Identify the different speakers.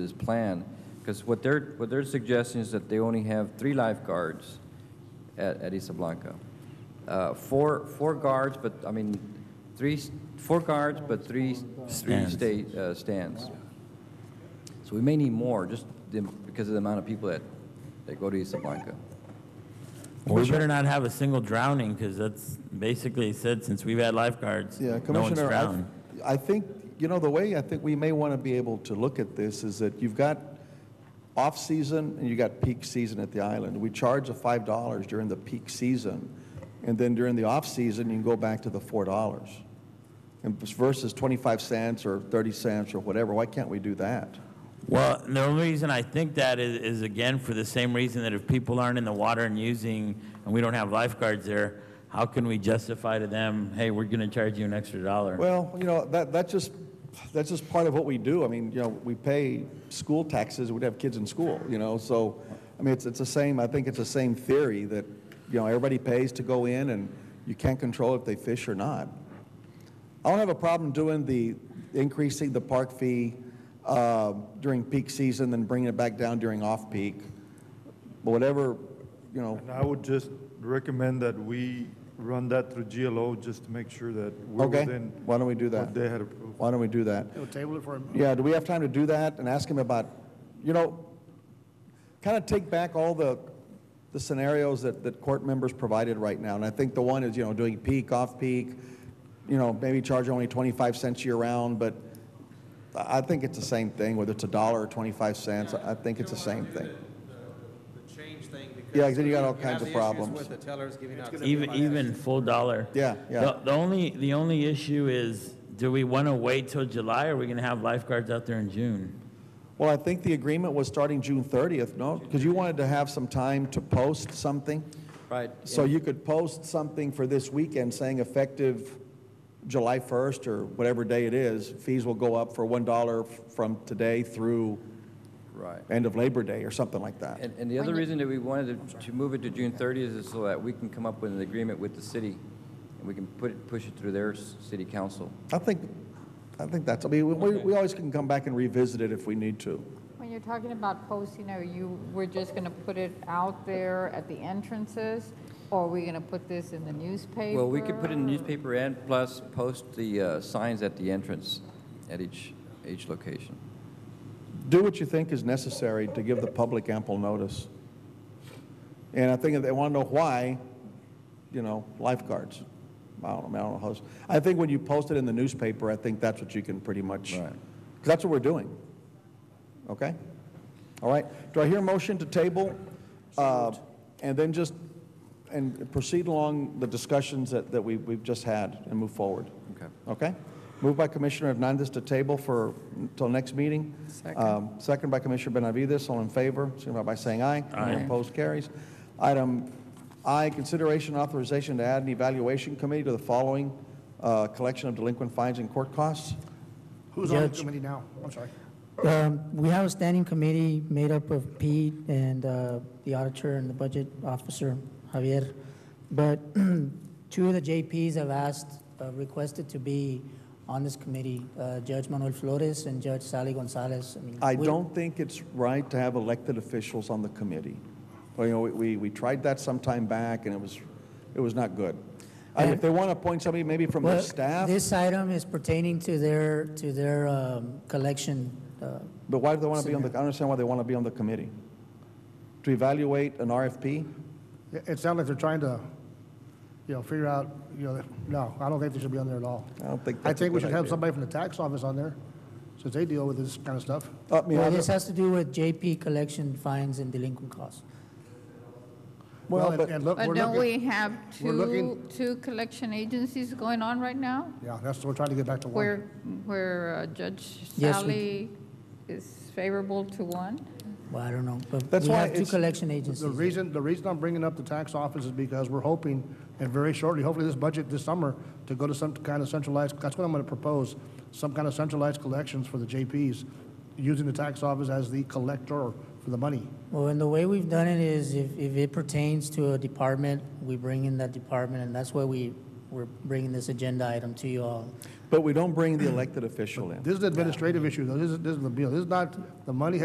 Speaker 1: this plan, because what they're, what they're suggesting is that they only have three lifeguards at, at Isablanca. Uh, Four, four guards, but, I mean, three, s- four guards, but three, three
Speaker 2: Stands.
Speaker 1: sta- uh, stands. So we may need more, just the- because of the amount of people that, that go to Isablanca.
Speaker 2: We better not have a single drowning, because that's basically he said, since we've had lifeguards,
Speaker 3: Yeah,
Speaker 2: no one's
Speaker 3: Commissioner,
Speaker 2: drowned.
Speaker 3: I- I think, you know, the way I think we may want to be able to look at this is that you've got off-season and you've got peak season at the island. We charge the $5 during the peak season, and then during the off-season, you can go back to the $4. And versus 25 cents or 30 cents or whatever, why can't we do that?
Speaker 2: Well, the only reason I think that is, is again, for the same reason that if people aren't in the water and using, and we don't have lifeguards there, how can we justify to them, hey, we're going to charge you an extra dollar?
Speaker 3: Well, you know, that, that's just, that's just part of what we do. I mean, you know, we pay school taxes, we have kids in school, you know, so, I mean, it's, it's the same, I think it's the same theory that, you know, everybody pays to go in and you can't control if they fish or not. I don't have a problem doing the, increasing the park fee uh, during peak season, then bringing it back down during off-peak. But whatever, you know,
Speaker 4: And I would just recommend that we run that through GLO just to make sure that we're
Speaker 3: okay,
Speaker 4: within.
Speaker 3: why don't we do that?
Speaker 4: What they had approved.
Speaker 3: Why don't we do that?
Speaker 5: We'll table it for him.
Speaker 3: Yeah, do we have time to do that and ask him about, you know, kind of take back all the, the scenarios that, that court members provided right now. And I think the one is, you know, doing peak, off-peak, you know, maybe charge only 25 cents year-round, but I I think it's the same thing, whether it's a dollar or 25 cents, I I think it's the same thing.
Speaker 6: the change thing because.
Speaker 3: Yeah, 'cause then you got all
Speaker 6: have
Speaker 3: kinds of
Speaker 6: the issues
Speaker 3: problems.
Speaker 6: With the tellers giving out.
Speaker 2: Even, even full dollar.
Speaker 3: Yeah, yeah.
Speaker 2: The, the only, the only issue is, do we want to wait till July, or are we going to have lifeguards out there in June?
Speaker 3: Well, I think the agreement was starting June 30th, no? Because you wanted to have some time to post something?
Speaker 1: Right.
Speaker 3: So you could post something for this weekend saying effective July 1st or whatever day it is, fees will go up for $1 f- from today through
Speaker 1: Right.
Speaker 3: end of Labor Day or something like that.
Speaker 1: And, and the other reason that we wanted to- to move it to June 30th is so that we can come up with an agreement with the city, and we can put it, push it through their s- city council.
Speaker 3: I think, I think that's, I mean, we- we, we always can come back and revisit it if we need to.
Speaker 7: When you're talking about posting, are you, we're just going to put it out there at the entrances? Or are we going to put this in the newspaper?
Speaker 1: Well, we could put it in the newspaper and plus post the uh, signs at the entrance at each, each location.
Speaker 3: Do what you think is necessary to give the public ample notice. And I think if they want to know why, you know, lifeguards. I don't know, I mean, I don't know how, else- I think when you post it in the newspaper, I think that's what you can pretty much,
Speaker 1: Right.
Speaker 3: because that's what we're doing. Okay? All right. Do I hear a motion to table? Uh, And then just, and proceed along the discussions that, that we, we've just had and move forward.
Speaker 1: Okay.
Speaker 3: Okay? Moved by Commissioner Hernandez to table for, until next meeting. Um, Second by Commissioner Benavides, all in favor, signify by saying aye. Aye. Opposed, carries. Item I, consideration authorization to add an evaluation committee to the following uh, collection of delinquent fines and court costs.
Speaker 5: Who's on the
Speaker 8: Judge.
Speaker 5: committee now? I'm sorry.
Speaker 8: Um, We have a standing committee made up of Pete and uh, the auditor and the budget officer, Javier. But two of the JPs have asked, uh, requested to be on this committee, uh, Judge Manuel Flores and Judge Sally Gonzalez. mean,
Speaker 3: I
Speaker 8: we-
Speaker 3: don't think it's right to have elected officials on the committee. Well, you know, we- we, we tried that some time back, and it was, it was not good. I mean, If they want to appoint somebody maybe from the
Speaker 8: Well,
Speaker 3: staff,
Speaker 8: This item is pertaining to their, to their um, collection. uh,
Speaker 3: but why do they want to be on the, I don't understand why they want to be on the committee. To evaluate an RFP?
Speaker 5: It- It sounds like they're trying to, you know, figure out, you know, no, I don't think they should be on there at all.
Speaker 3: I don't think
Speaker 5: I
Speaker 3: that's a
Speaker 5: think we
Speaker 3: good
Speaker 5: should have
Speaker 3: idea.
Speaker 5: somebody from the tax office on there, since they deal with this kind of stuff.
Speaker 3: I mean, I
Speaker 8: Well,
Speaker 3: don't-
Speaker 8: this has to do with JP collection fines and delinquent costs.
Speaker 3: Well,
Speaker 5: and-
Speaker 3: but-
Speaker 5: and look,
Speaker 7: But
Speaker 5: we're
Speaker 7: don't we
Speaker 5: looking,
Speaker 7: have
Speaker 5: we're
Speaker 7: two,
Speaker 5: looking-
Speaker 7: two collection agencies going on right now?
Speaker 5: yeah, that's, what we're trying to get back to one.
Speaker 7: Where, where uh, Judge
Speaker 8: Yes, we-
Speaker 7: Sally is favorable to one?
Speaker 8: Well, I don't know, but
Speaker 3: That's
Speaker 8: we
Speaker 3: why
Speaker 8: have two
Speaker 3: it's-
Speaker 8: collection agencies.
Speaker 5: The reason, the reason I'm bringing up the tax office is because we're hoping, and very shortly, hopefully this budget this summer, to go to some kind of centralized, that's what I'm gonna propose, some kind of centralized collections for the JPs, using the tax office as the collector for the money.
Speaker 8: Well, and the way we've done it is if, if it pertains to a department, we bring in that department, and that's why we we're bringing this agenda item to you all.
Speaker 3: But we don't bring the elected official in.
Speaker 5: This is an administrative issue, though. This is, this is the bill. This is not, the money